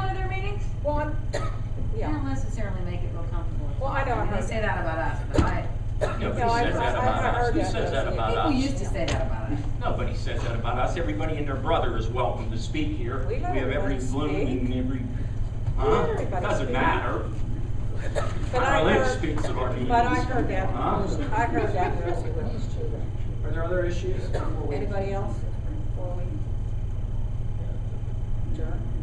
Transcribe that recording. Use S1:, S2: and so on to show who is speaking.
S1: I've-
S2: says that
S1: I've
S2: about us.
S1: heard
S2: He
S1: that.
S2: says that about
S3: People
S2: us.
S3: used to say that about us.
S2: Nobody says that about us. Everybody and their brother is welcome to speak here.
S1: We let
S2: have every
S1: everybody
S2: bloom
S1: speak.
S2: and every,
S1: We let
S2: huh?
S1: everybody
S2: Doesn't
S1: speak.
S2: matter.
S1: But I
S2: Our lip
S1: heard-
S2: speaks of our needs.
S1: But I heard that,
S2: Huh?
S1: I heard that when I was with these children.
S2: Are there other issues?
S1: Anybody else? Before we adjourn?